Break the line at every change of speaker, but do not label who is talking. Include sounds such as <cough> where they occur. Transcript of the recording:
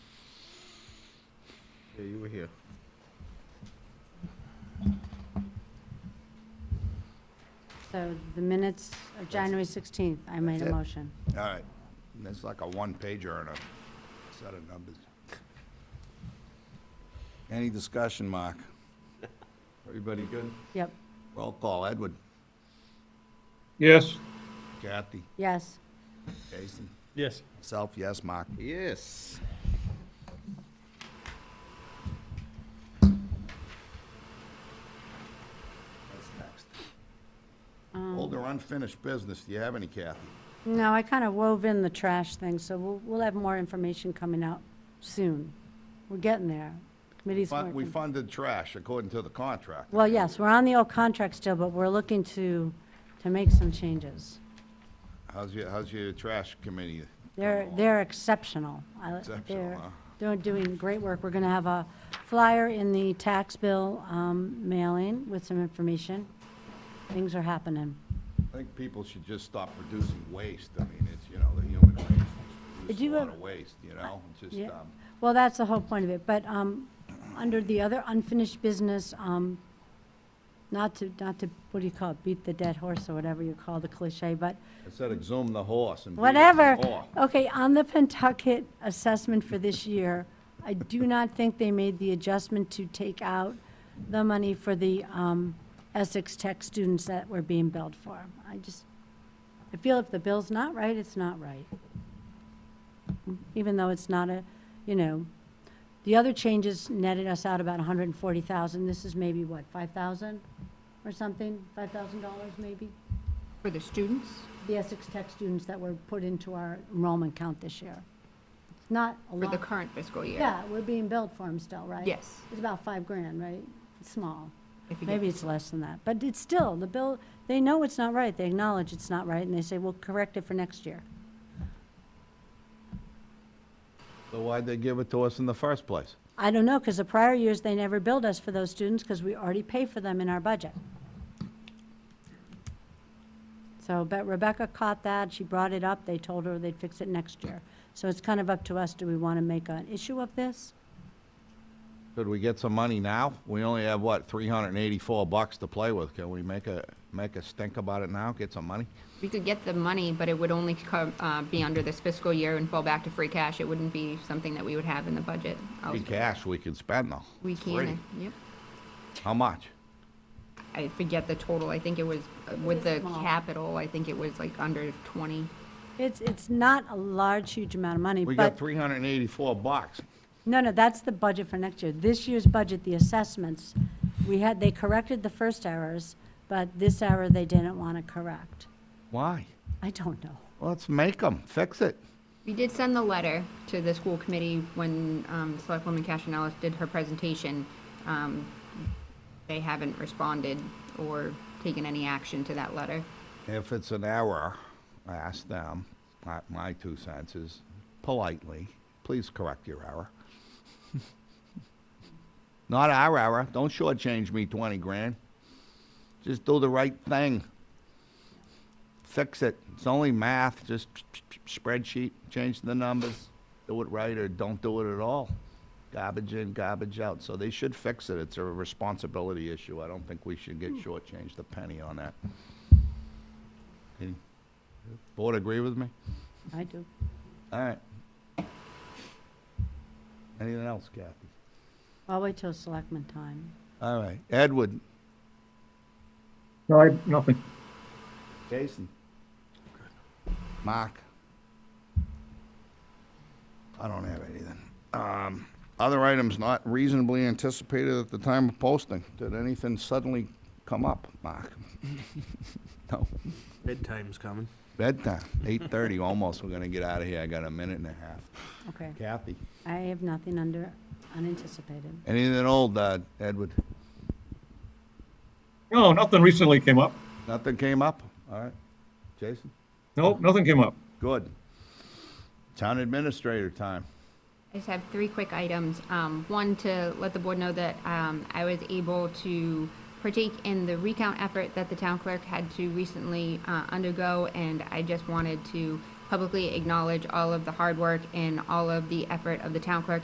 Yeah, you were here.
So the minutes of January 16th, I made a
it.
motion.
All right, that's like a one-pager and a set of numbers. Any discussion, Mark? Everybody good?
Yep,
Roll call, Edward,
Yes,
Kathy,
yes.
Jason,
Yes.
myself, yes, Mark.
Yes.
What's next? Old or unfinished business, do you have any, Kathy?
No, I kind of wove in the trash thing, so we'll, we'll have more information coming out soon. We're getting there. Committee's
Fun- We
working.
funded trash according to the contract.
Well, yes, we're on the old contract still, but we're looking to, to make some changes.
How's your, how's your trash committee?
They're, they're exceptional. I-
Oh. Exceptional,
they're-
huh?
They're doing great work. We're going to have a flyer in the tax bill um, mailing with some information. Things are happening.
I think people should just stop producing waste. I mean, it's, you know, the human race is
Do you
producing a lot
have-
of waste, you know? It's
Yeah.
Just, um,
Well, that's the whole point of it, but um, under the other unfinished business, um, not to, not to, what do you call it, beat the dead horse or whatever you call the cliche, but
Instead of exhume the horse and. beat it to the
whatever.
whore.
Okay, on the Pentucket assessment for this year, I do not think they made the adjustment to take out the money for the um, Essex Tech students that were being billed for. I just, I feel if the bill's not right, it's not right. Even though it's not a, you know, the other changes netted us out about 140,000. This is maybe, what, 5,000 or something? $5,000 maybe?
For the students?
the Essex Tech students that were put into our enrollment count this year. It's Not a
For the
lot.
current fiscal year?
Yeah, we're being billed for them still, right?
Yes.
It's about five grand, right? It's small.
If you get-
Maybe it's less than that, but it's still, the bill, they know it's not right, they acknowledge it's not right, and they say, we'll correct it for next year.
So why'd they give it to us in the first place?
I don't know, because the prior years, they never billed us for those students, because we already pay for them in our budget. So, but Rebecca caught that, she brought it up, they told her they'd fix it next year. So it's kind of up to us, do we want to make an issue of this?
Could we get some money now? We only have, what, three hundred and eighty-four bucks to play with. Can we make a, make a stink about it now, get some money?
We could get the money, but it would only co- uh, be under this fiscal year and fall back to free cash. It wouldn't be something that we would have in the budget.
Free cash we can spend though.
We
It's free.
can, yep.
How much?
I forget the total. I think it was, uh, with the
small.
capital, I think it was like under 20.
It's, it's not a large, huge amount of money,
We got
but,
three hundred and eighty-four bucks.
no, no, that's the budget for next year. This year's budget, the assessments, we had, they corrected the first errors, but this error they didn't want to correct.
Why?
I don't know.
Let's make them, fix it.
We did send the letter to the school committee when um, Selectwoman Castellalis did her presentation. Um, They haven't responded or taken any action to that letter.
If it's an error, I ask them, my, my two cents is politely, please correct your error. <laughs> Not our error, don't shortchange me twenty grand. Just do the right thing. Fix it, it's only math, just spreadsheet, change the numbers, do it right or don't do it at all. Garbage in, garbage out, so they should fix it, it's a responsibility issue, I don't think we should get shortchanged a penny on that. Any- Board agree with me?
I do.
All right. Anything else, Kathy?
I'll wait till selectman time.
All right, Edward,
no, I, nothing.
Jason, Mark. I don't have anything. Um, other items not reasonably anticipated at the time of posting. Did anything suddenly come up, Mark? <laughs> No.
Bedtime's coming.
Bedtime, eight thirty, <laughs> almost. We're gonna get out of here. I got a minute and a half.
Okay.
Kathy,
I have nothing under unanticipated.
anything old, uh, Edward?
No, nothing recently came up.
Nothing came up? All right. Jason?
Nope, nothing came up.
Good. Town administrator time.
I just have three quick items. Um, One, to let the board know that um, I was able to partake in the recount effort that the town clerk had to recently uh, undergo, and I just wanted to publicly acknowledge all of the hard work and all of the effort of the town clerk